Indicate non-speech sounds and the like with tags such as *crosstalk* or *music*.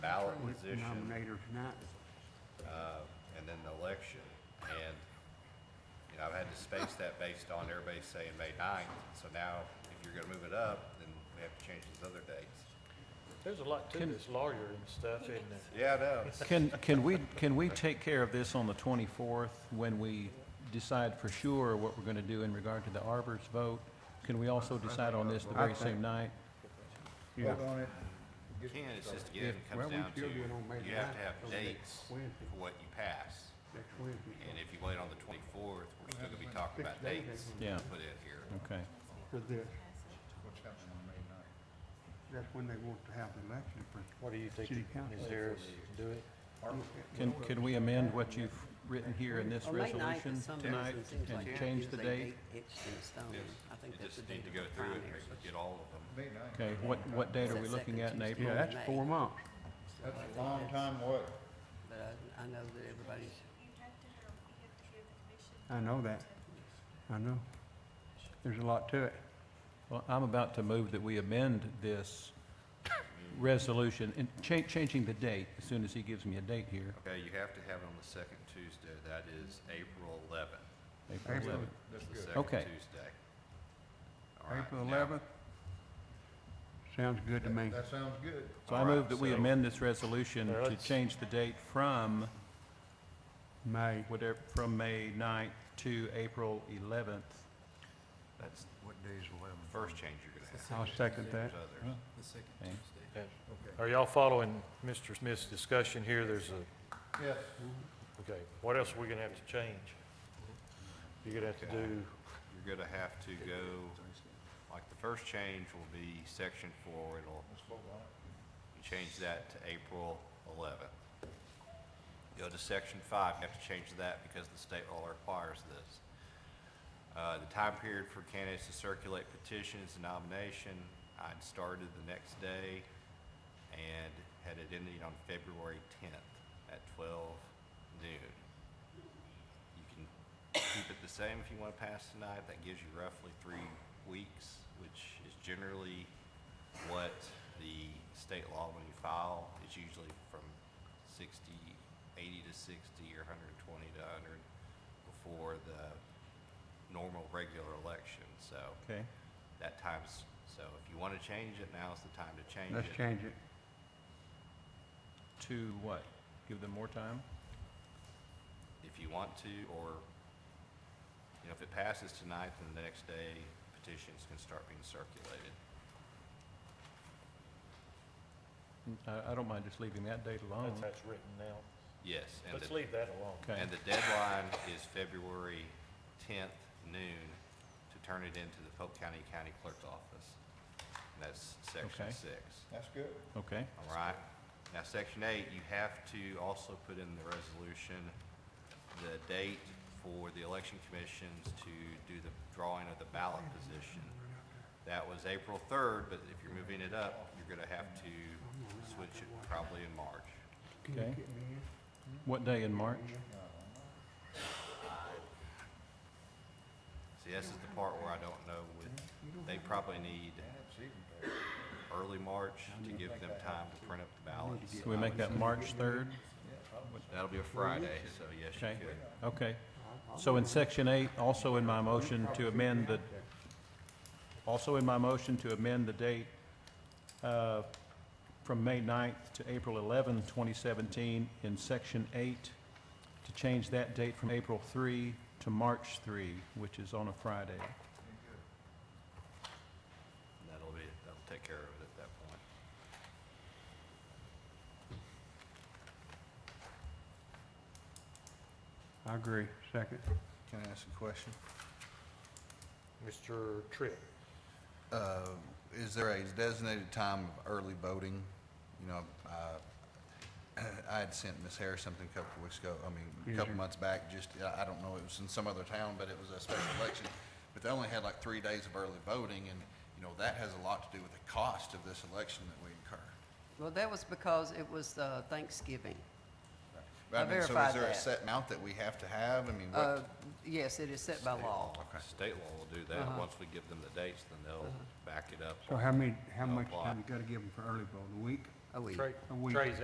ballot position, Nominator tonight. uh, and then the election. And, you know, I've had to space that based on everybody saying May ninth, so now if you're gonna move it up, then we have to change these other dates. There's a lot to this lawyer and stuff, isn't there? Yeah, I know. Can, can we, can we take care of this on the 24th when we decide for sure what we're going to do in regard to the arbor's vote? Can we also decide on this the very same night? Yeah. Vote on it. You can, it's just again, Yeah, it comes well, we down to, still do it on May you have to 9th, have so next dates for Wednesday. what you pass. Next Wednesday. And if you wait on the twenty-fourth, we're still gonna be talking about Six days. dates Yeah. to put in here. Okay. For this, What's happening on May ninth? that's when they want to have the election for. What do you think, City council. Ms. Harris, do it? Can, can we amend what you've written here in this Well, late night, but resolution some tonight reason seems like and change the Tuesday date? date Etched in stone. Yes, I think you that's just the need date to of go the through it primaries. and get all of them. May ninth. Okay, what, what date It's are that we looking at in second Tuesday. April? Yeah, that's four months. That's a long time away. But I, I know that everybody's, I know that. I know. There's a lot to it. Well, I'm about to move that we amend this resolution and cha- changing the date as soon as he gives me a date here. Okay, you have to have it on the second Tuesday, that is April eleventh. April April. 11th. That's good. the second Okay. Tuesday. All right, April now- eleventh. Sounds good to me. That sounds good. So I All right, move that we so- amend this resolution Now, to let's- change the date from May. whatever, from May 9th to April 11th. That's What day's eleven? the first change you're gonna have. I'll second that. There's others. Okay. Are y'all following Mr. Smith's discussion here? There's a, Yes. okay, what else are we gonna have to change? You're gonna have to do, You're gonna have to go, like, the first change will be section four, it'll, Let's vote on it. you change that to April eleventh. Go to section five, you have to change that because the state law requires this. Uh, the time period for candidates to circulate petitions and nomination, I'd started the next day and had it ending on February tenth at twelve noon. You can keep it the same if you want to pass tonight. That gives you roughly three weeks, which is generally what the state law, when you file, is usually from 60, 80 to 60 or 120 to 100 before the normal regular election. So Okay, that time's, so if you want to change it, now's the time to change Let's it. change it. to what? Give them more time? if you want to, or, you know, if it passes tonight, then the next day petitions can start being circulated. I, I don't mind just leaving that date alone. that's how it's written now. Yes, and Let's the, leave that alone. Okay, and the deadline is February tenth noon to turn it into the Polk County County Clerk's Office. And that's section Okay. six, That's good. okay. all right? Now, section eight, you have to also put in the resolution, the date for the election commissions to do the drawing of the ballot position. That was April third, but if you're moving it up, you're gonna have to switch it probably in March. Can you Okay. get me in? What day in March? See, this is the part where I don't know with, they probably need That's even better. early March to give them time to print up the ballots. Can we make that March 3rd? That'll be a Friday, so yes, Okay, you could. okay. So in section eight, also in my motion to amend the, also in my motion to amend the date uh, from May 9th to April 11, 2017, in section eight, to change that date from April 3 to March 3, which is on a Friday. That'll be, that'll take care of it at that point. I agree. Second. Can I ask a question? Mr. Tripp, Uh, Is there a designated time of early voting? You know, uh, I *clears throat* had sent Ms. Harris something a couple of weeks ago, I mean, Yes, a couple sir. months back, just, I I don't know, it was in some other town, but it was a special election. But they only had like three days of early voting, and, you know, that has a lot to do with the cost of this election that we incur. well, that was because it was uh, Thanksgiving. But I mean, verified So is there a that. set amount that we have to have? I mean, Uh, what, Yes, it is set by law. State law will do that. Once we give them the dates, then they'll back it up. So how many, how No much block. time you gotta give them for early vote? A week? A week. Trey, A week. Trey's